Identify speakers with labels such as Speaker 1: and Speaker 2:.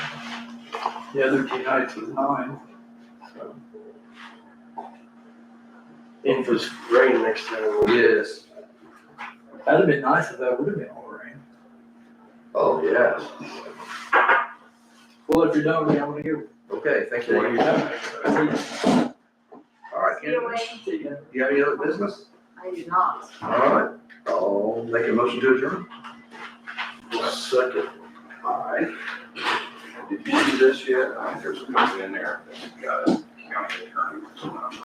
Speaker 1: the other GI to nine, so.
Speaker 2: If it's rain next time.
Speaker 3: Yes,
Speaker 1: That'd have been nice if that would have been all rain.
Speaker 3: oh, yes,
Speaker 1: Well, if you're done with me, I want to hear.
Speaker 3: okay, thank you. All right,
Speaker 4: See you later.
Speaker 3: you have any other business?
Speaker 4: I do not.
Speaker 3: All right, I'll make a motion to adjourn.
Speaker 2: Second.
Speaker 3: All right. Did you do this yet? I think there's a copy in there, that's got a county attorney.